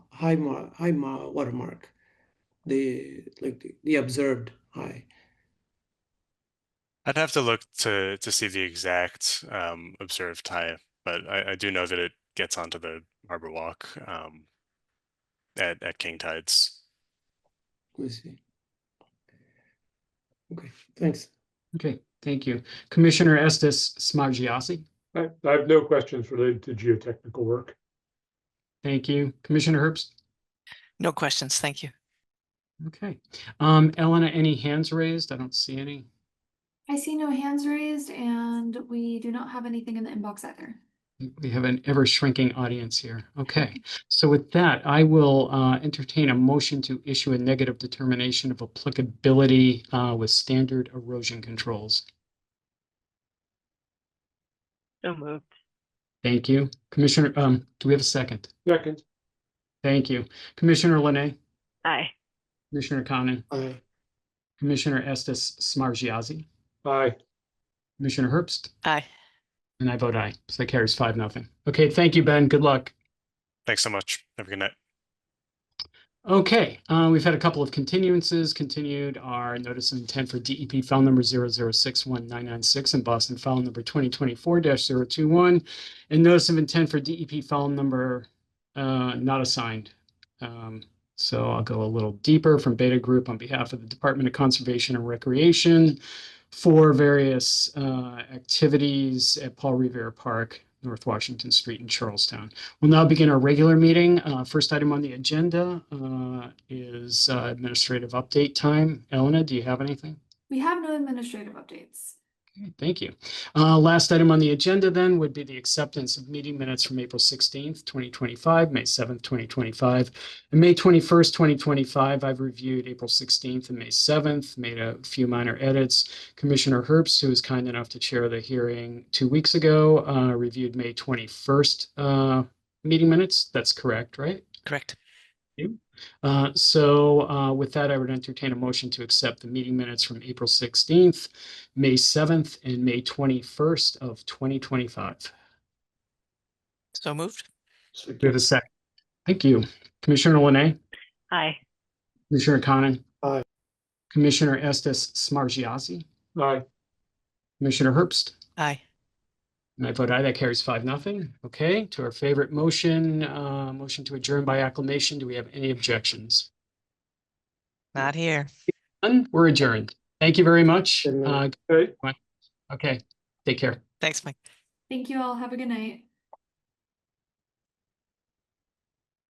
high mark, high mar watermark, the like the, the observed high. I'd have to look to to see the exact um, observed high, but I, I do know that it gets onto the harbor walk um, at at king tides. Let me see. Okay, thanks. Okay, thank you. Commissioner Estes Smargiassi, I, I have no questions related to geotechnical work. thank you. Commissioner Herbst? No questions, thank you. Okay. Um, Elena, any hands raised? I don't see any. I see no hands raised and we do not have anything in the inbox either. We have an ever shrinking audience here. Okay. So with that, I will uh, entertain a motion to issue a negative determination of applicability uh, with standard erosion controls. So moved. Thank you. Commissioner, um, do we have a second? Second, Thank you. Commissioner Linay, Aye. Commissioner Conan, Aye. Commissioner Estes Smargiassi, aye, Commissioner Herbst, Aye. and I vote aye. So that carries five, nothing. Okay, thank you, Ben. Good luck. Thanks so much. Have a good night. Okay, uh, we've had a couple of continuances, continued our notice of intent for DEP file number zero zero six one nine nine six and Boston file number twenty twenty-four 21 And notice of intent for DEP file number, uh, not assigned. Um, so I'll go a little deeper from Beta Group on behalf of the Department of Conservation and Recreation for various, uh, activities at Paul Revere Park, North Washington Street in Charlestown. We'll now begin our regular meeting. Uh, First item on the agenda uh, is uh, administrative update time. Elena, do you have anything? We have no administrative updates. Okay, Thank you. Uh, Last item on the agenda then would be the acceptance of meeting minutes from April sixteenth, twenty twenty-five, May seventh, twenty twenty-five, and May twenty-first, twenty twenty-five. I've reviewed April sixteenth and May seventh, made a few minor edits. Commissioner Herbst, who was kind enough to chair the hearing two weeks ago, uh, reviewed May twenty-first uh, meeting minutes. That's correct, right? Correct. Uh, So uh, with that, I would entertain a motion to accept the meeting minutes from April 16th, May 7th, and May 21st of 2025. Do So moved. we have a second? Thank you. Commissioner Linay, Aye. Commissioner Conan. Aye. Commissioner Estes Smargiassi, aye, Commissioner Herbst. Aye. And I vote aye, that carries five, nothing. Okay, to our favorite motion, uh, motion to adjourn by acclamation. Do we have any objections? Not here. None, we're adjourned. Thank you very much. Good night. Uh, Hey, Okay, take care. Thanks, Mike. Thank you all. Have a good night.